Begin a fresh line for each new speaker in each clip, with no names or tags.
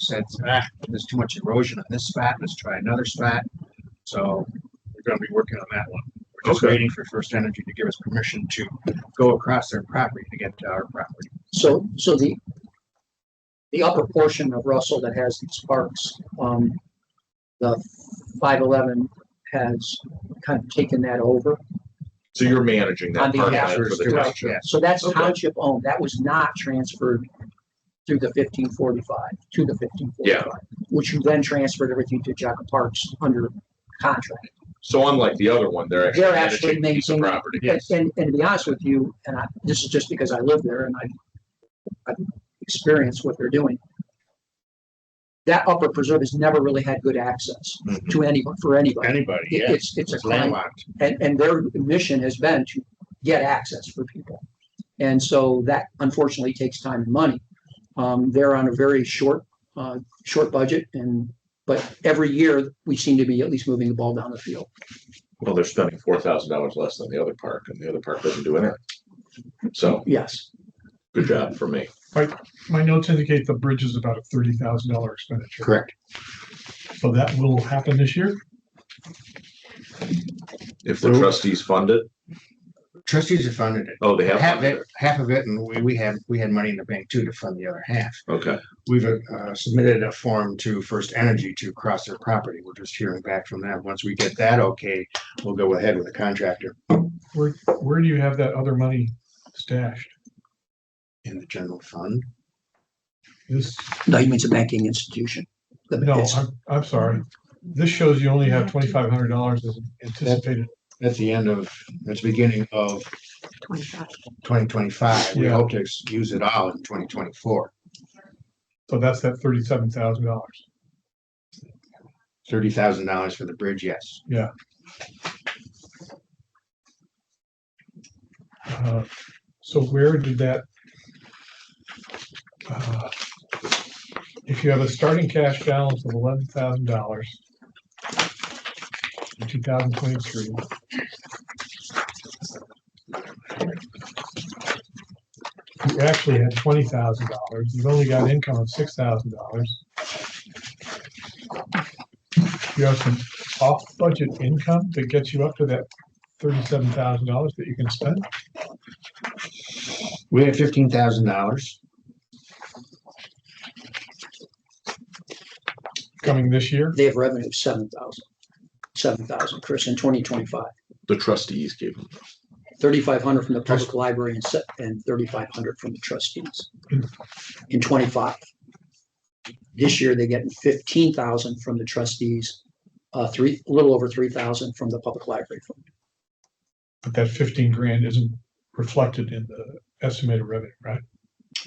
said, ah, there's too much erosion on this spot, let's try another spot. So we're gonna be working on that one. We're just
Okay.
waiting for First Energy to give us permission to go across their property to get to our property.
So, so the, the upper portion of Russell that has these parks, um, the five eleven has kind of taken that over.
So you're managing
On
that
the
part
Yeah,
for the
Right,
township.
yes.
So that's
Okay.
township owned. That was not transferred through the fifteen forty-five, to the fifteen forty-five. Which you then transferred everything to Jacob Parks under contract.
So unlike the other one, they're actually
They're actually
managing the piece of
maintaining-
property.
Yes.
And, and to be honest with you, and I, this is just because I live there and I, I've experienced what they're doing. That upper preserve has never really had good access
Mhm.
to anyone, for anybody.
Anybody,
It-
Mm-hmm. yeah.
It's, it's a
It's
client,
landlocked.
and, and their mission has been to get access for people. And so that unfortunately takes time and money. Um, they're on a very short, uh, short budget and, but every year we seem to be at least moving the ball down the field.
Well, they're spending four thousand dollars less than the other park and the other park doesn't do anything. So
Yes.
good job for me.
My notes indicate the bridge is about a thirty thousand dollar expenditure.
Correct.
So that will happen this year.
If the trustees fund it,
Trustees have funded it.
oh, they have
Half of
funded
it, half of it, and we, we had, we had money in the bank too to fund the other half.
it. Okay,
We've uh, submitted a form to First Energy to cross their property. We're just hearing back from them. Once we get that okay, we'll go ahead with the contractor
Where, where do you have that other money stashed?
in the general fund.
This,
No, he means a banking institution. The-
no,
it's-
I'm, I'm sorry. This shows you only have twenty-five hundred dollars as anticipated.
That's the end of, that's the beginning of
Twenty-five.
twenty twenty-five. We
Yeah.
hope to ex- use it all in twenty twenty-four.
So that's that thirty-seven thousand dollars.
Thirty thousand dollars for the bridge, yes.
Uh, So where did that? uh, If you have a starting cash balance of eleven thousand dollars in two thousand twenty-three. You actually had twenty thousand dollars. You've only got income of six thousand dollars. You have some off-budget income that gets you up to that thirty-seven thousand dollars that you can spend.
We had fifteen thousand dollars
coming this year.
They have revenue of seven thousand, seven thousand, Chris, in twenty twenty-five,
the trustees gave them.
thirty-five hundred from the public library and se- and thirty-five hundred from the trustees. In twenty-five. This year, they get fifteen thousand from the trustees, uh, three, a little over three thousand from the public library. fund.
But that fifteen grand isn't reflected in the estimated revenue, right?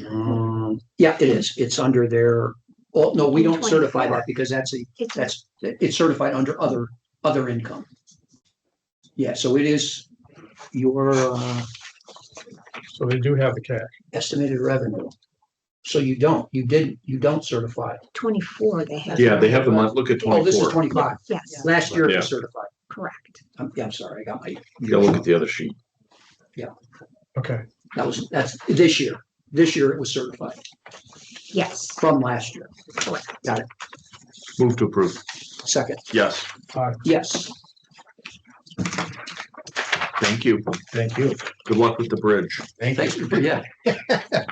Um, yeah, it is. It's under their, oh, no, we don't certify
24.
that because that's a,
It's a
that's, it's certified under other, other income. Yeah, so it is your, uh,
So they do have the cash.
estimated revenue. So you don't, you didn't, you don't certify.
twenty-four they have.
Yeah, they have the month, look at
Oh, this is
twenty-four.
twenty-five.
Yes,
Last year it
Yeah.
was certified.
correct.
I'm, yeah, I'm sorry, I got my,
You gotta look at the other sheet.
Okay,
that was, that's this year. This year it was certified
Yes,
from last year.
correct.
Move to approve.
Second,
Yes,
aye.
yes.
thank you.
Thank you.
Good luck with the bridge.
Thank
Thanks
you.
for, yeah.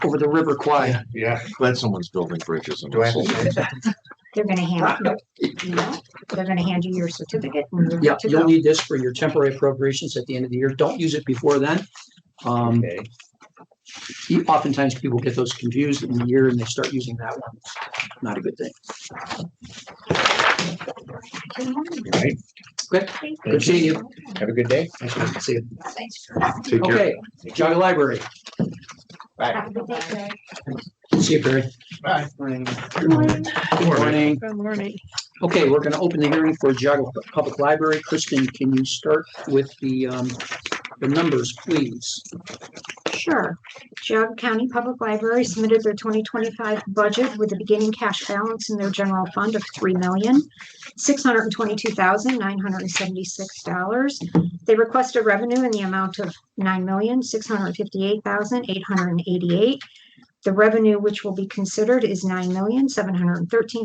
Over the river Kwai.
Yeah.
Glad someone's building bridges. in
Do I have to
Russell.
sign something?
They're gonna hand, you know, they're gonna hand you your certificate and you're
Yeah,
good to
you'll
go.
need this for your temporary appropriations at the end of the year. Don't use it before then. Um,
Okay.
you- oftentimes people get those confused in the year and they start using that one. Not a good thing.
Right.
Good. Good seeing you.
Have a good day.
Nice to see you.
Thanks.
Take care.
Okay, Jaga Library.
Have a good day, Greg.
See you, Barry.
Bye.
Good morning.
Good morning.
Okay, we're going to open the hearing for Jago Public Library. Kristen, can you start with the, um, the numbers, please?
Sure. Geog County Public Library submitted their twenty twenty-five budget with a beginning cash balance in their general fund of three million, six hundred and twenty-two thousand, nine hundred and seventy-six dollars. They requested revenue in the amount of nine million, six hundred and fifty-eight thousand, eight hundred and eighty-eight. The revenue which will be considered is nine million, seven hundred and thirteen